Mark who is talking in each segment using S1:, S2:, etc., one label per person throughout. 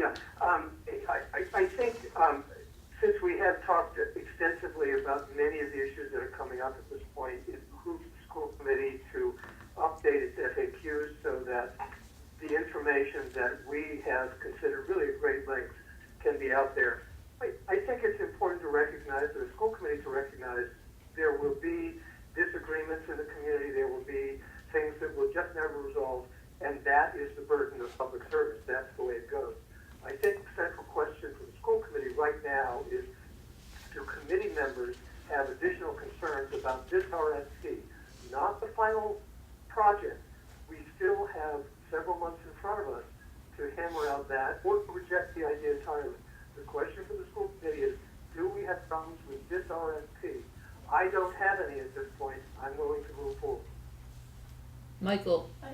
S1: Yeah, um, I, I, I think, um, since we have talked extensively about many of the issues that are coming up at this point, it behooves the school committee to update its FAQs so that the information that we have considered really at great length can be out there. I, I think it's important to recognize, for the school committee to recognize, there will be disagreements in the community, there will be things that will just never resolve, and that is the burden of public service, that's the way it goes. I think the central question for the school committee right now is, do committee members have additional concerns about this RFP? Not the final project. We still have several months in front of us to hammer out that or to reject the idea entirely. The question for the school committee is, do we have problems with this RFP? I don't have any at this point. I'm willing to move forward.
S2: Michael,
S3: I,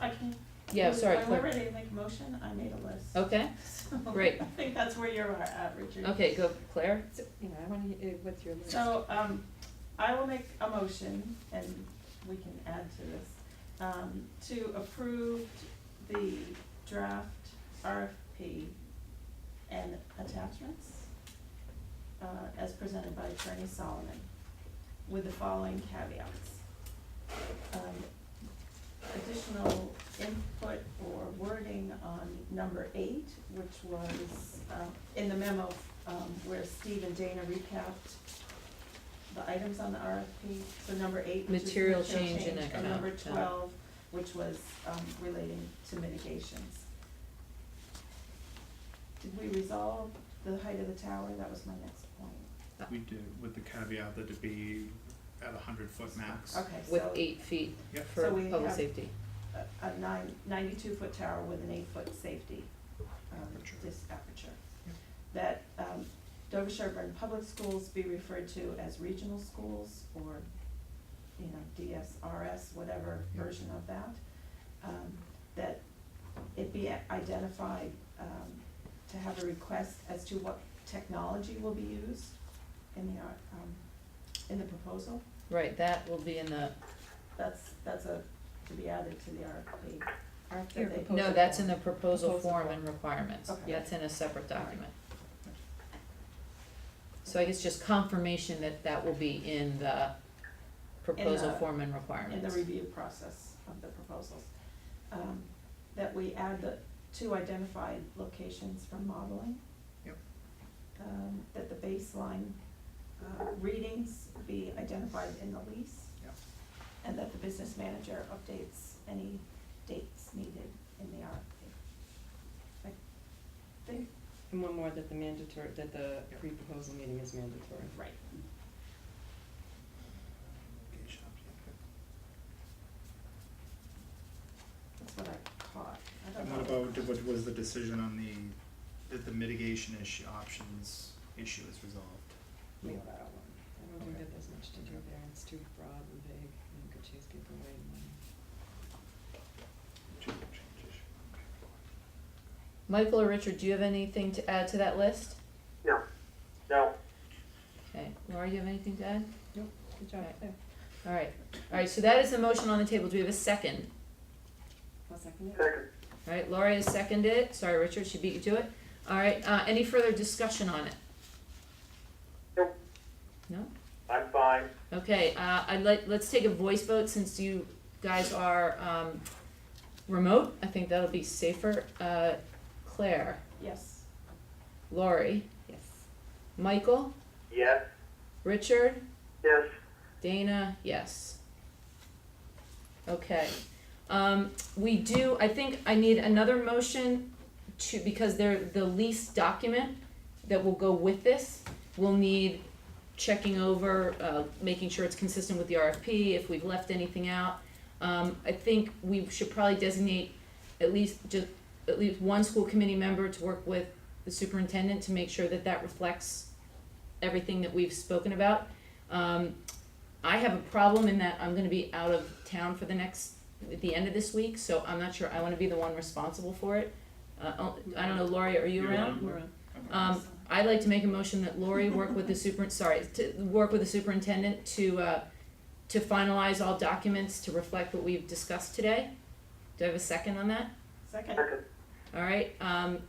S3: I can.
S2: Yeah, sorry,
S3: I'm
S2: Claire.
S3: ready to make a motion, I made a list.
S2: okay,
S3: So,
S2: great.
S3: I think that's where you're at, Richard.
S2: okay, go Claire.
S4: So, yeah, I wanna, hear- uh, what's your list?
S3: So, um, I will make a motion, and we can add to this, um, to approve the draft RFP and attachments, uh, as presented by Attorney Solomon, with the following caveats. Um, additional input or wording on number eight, which was, um, in the memo, um, where Steve and Dana recapped the items on the RFP, so number eight, which is
S2: Material
S3: material
S2: change in
S3: change, and number
S2: economic, uh,
S3: twelve, which was, um, relating to mitigations. Did we resolve the height of the tower? That was my next point.
S2: Uh,
S5: We did, with the caveat that it be at a hundred foot max.
S3: Okay, so.
S2: With eight feet
S5: Yep.
S2: for
S3: So we
S2: public
S3: have-
S2: safety.
S3: a- a nine, ninety-two foot tower with an eight-foot safety, um,
S5: Aperture.
S3: this aperture.
S5: Yep.
S3: That, um, Dover Sherburne Public Schools be referred to as regional schools or, you know, DSRS, whatever
S5: Yep.
S3: version of that. Um, that it be identified, um, to have a request as to what technology will be used in the, uh, um, in the proposal.
S2: Right, that will be in the,
S3: That's, that's a, to be added to the RFP.
S4: Our
S3: Your
S4: third
S3: proposal.
S2: no,
S4: proposal.
S2: that's in the proposal
S4: Proposal
S2: form
S4: form.
S2: and requirements.
S3: Okay.
S2: That's in a separate document. So I guess just confirmation that that will be in the proposal
S3: the-
S2: form and
S3: in the
S2: requirements.
S3: review process of the proposals. Um, That we add the two identified locations for modeling.
S5: Yep.
S3: Um, That the baseline uh, readings be identified in the lease.
S5: Yep.
S3: And that the business manager updates any dates needed in the RFP. I think,
S4: And one more, that the mandatory, that the pre-proposal meeting is mandatory.
S3: right.
S5: Gate shops,
S3: That's what I caught. I
S5: yeah.
S3: don't
S5: And
S3: know.
S5: what about, did- what was the decision on the, that the mitigation issue, options issue is resolved?
S4: We allow one. I don't think
S5: Okay.
S4: that there's much to do there, it's too broad and vague, and it could chase people away. and then-
S5: Change- change issue.
S2: Michael or Richard, do you have anything to add to that list?
S1: No, no.
S2: Okay, Laura, you have anything to add?
S4: Nope, good job,
S2: Right.
S4: Claire.
S2: All right, all right, so that is the motion on the table. Do we have a second?
S4: I'll second it.
S1: Second,
S2: All right, Laurie has seconded it. Sorry, Richard, she beat you to it. All right, uh, any further discussion on it?
S1: Nope.
S2: No?
S1: I'm fine.
S2: Okay, uh, I'd like, let's take a voice vote since you guys are, um, remote. I think that'll be safer. Uh, Claire,
S3: Yes.
S2: Laurie,
S4: Yes.
S2: Michael,
S1: Yes.
S2: Richard,
S1: Yes,
S2: Dana, yes. Okay, um, we do, I think I need another motion to, because they're the lease document that will go with this, will need checking over, uh, making sure it's consistent with the RFP, if we've left anything out. Um, I think we should probably designate at least just, at least one school committee member to work with the superintendent to make sure that that reflects everything that we've spoken about. Um, I have a problem in that I'm gonna be out of town for the next, at the end of this week, so I'm not sure I wanna be the one responsible for it. Uh, I'll- I don't know, Lori, are you
S5: You're
S2: around?
S5: on.
S4: We're on.
S2: Um, I'd like to make a motion that Lori work with the super, sorry, to work with the superintendent to, uh, to finalize all documents to reflect what we've discussed today. Do I have a second on that?
S3: Second.
S1: second.
S2: All right, um,